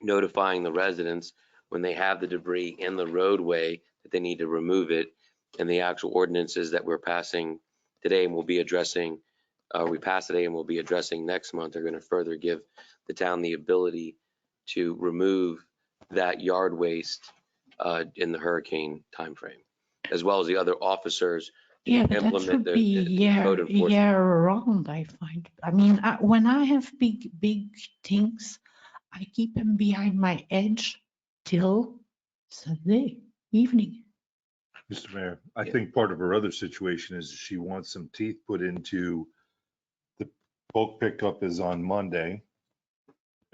notifying the residents when they have the debris in the roadway that they need to remove it. And the actual ordinances that we're passing today and we will be addressing, uh, we pass today and we will be addressing next month are going to further give the town the ability to remove that yard waste, uh, in the hurricane timeframe, as well as the other officers to Yeah, but that implement should the be the year, code enforcement. year round, I find. I mean, I- when I have big, big things, I keep them behind my edge till Sunday evening. Mr. Mayor, I Yeah. think part of her other situation is she wants some teeth put into the bulk pickup is on Monday.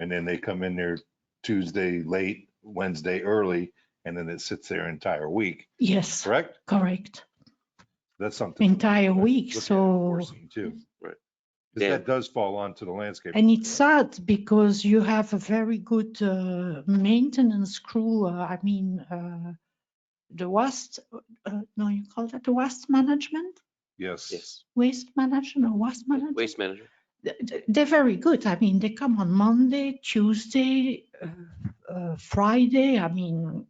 And then they come in there Tuesday late, Wednesday early, and then it sits there entire week, Yes, correct? correct. That's something. Entire week, Look at so. enforcing Too. Mm-hmm. Right. Because Yeah. that does fall onto the landscape. And it's sad because you have a very good uh, maintenance crew. uh, I mean, uh, the waste, uh, no, you call that the waste management? Yes. Yes, Waste management or waste management? waste management. th- th- they're very good. I mean, they come on Monday, Tuesday, uh, uh, Friday. I mean,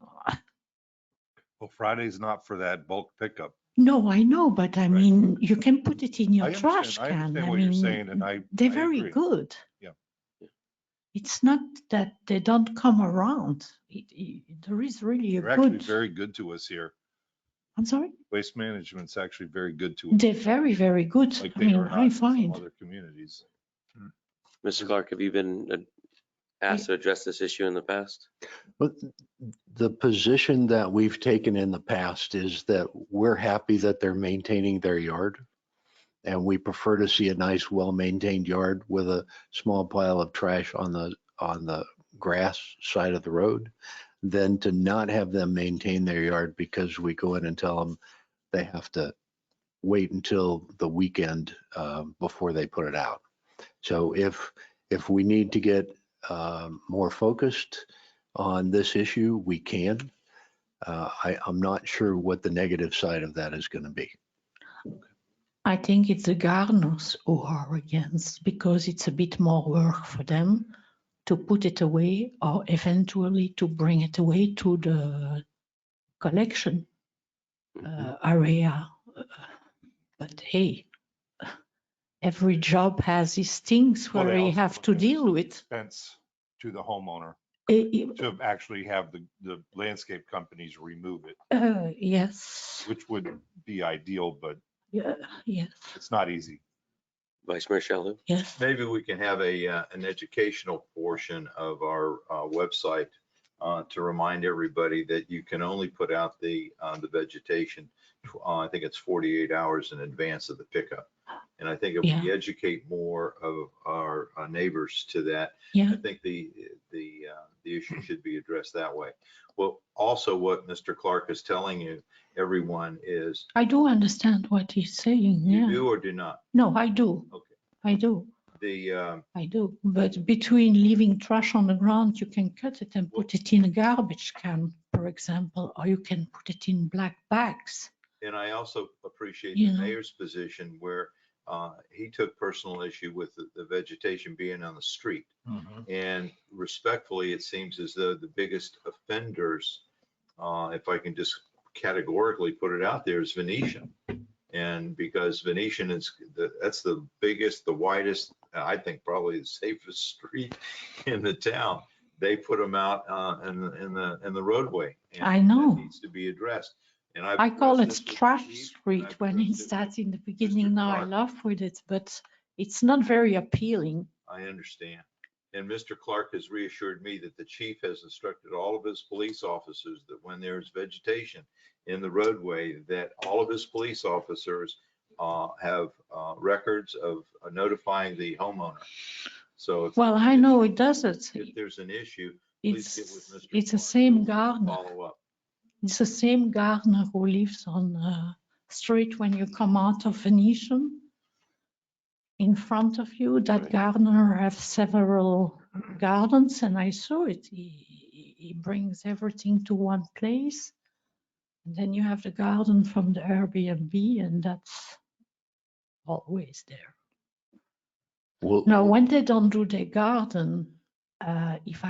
Well, Friday's not for that bulk pickup. no, I know, but I Right. mean, you can put it in your I trash understand, I can. understand I what you're mean, saying and I. They're I very agree. good. Yeah. Yeah. It's not that they don't come around. It, it, there is really a They're actually good. very good to us here. I'm sorry. Waste management's actually very good to us. They're very, very good. like I they mean, are not I in some find. other communities. Mr. Clark, have you been uh, asked to address this issue in the past? But the position that we've taken in the past is that we're happy that they're maintaining their yard. And we prefer to see a nice, well-maintained yard with a small pile of trash on the, on the grass side of the road than to not have them maintain their yard because we go in and tell them they have to wait until the weekend uh, before they put it out. So if, if we need to get um, more focused, on this issue, we can. Uh, I, I'm not sure what the negative side of that is going to be. I think it's the gardeners who are against because it's a bit more work for them to put it away or eventually to bring it away to the collection uh, area. But hey, every job has its things Well, where they we also have look to at deal with. Fence to the homeowner Eh, eh, to actually have the, the landscape companies remove it, uh, Yes, which would be ideal, but yeah, yes, it's not easy. Vice Mayor Shalhoub? yes. Maybe we can have a, uh, an educational portion of our uh, website uh, to remind everybody that you can only put out the, uh, the vegetation, uh, I think it's 48 hours in advance of the pickup. And I think if we educate more of our uh, neighbors to that, Yeah, I think the, the, uh, the issue should be addressed that way. Well, also what Mr. Clark is telling you, everyone, is I do understand what he's saying. you Yeah, do or do not. no, I do. Okay. I do. The, um, I do, but between leaving trash on the ground, you can cut it and put it in a garbage can, for example, or you can put it in black bags. And I also appreciate the Yeah. mayor's position where uh, he took personal issue with the- the vegetation being on the street. And respectfully, it seems as though the biggest offenders, uh, if I can just categorically put it out there, is Venetian. And because Venetian is, the- that's the biggest, the widest, I think probably the safest street in the town. They put them out uh, in, the- in the, in the roadway. and I that know. Needs to be addressed. And I've I call it addressed this with trash Steve, and street I've when addressed it's it with- that in the beginning. Now I Clark. laugh with it, but it's not very appealing. I understand. And Mr. Clark has reassured me that the chief has instructed all of his police officers that when there is vegetation in the roadway, that all of his police officers uh, have uh, records of uh, notifying the homeowner. So if- Well, I know it doesn't. if there's an issue, please get with It's, Mr. Clark. it's the so same we can gardener. Follow up. It's the same gardener who lives on uh, street when you come out of Venetian. In front of you, that Right. gardener has several gardens and I saw it. He, he- he brings everything to one place. And then you have the garden from the Airbnb and that's always there. We'll- Now, when they don't do their garden, uh, if I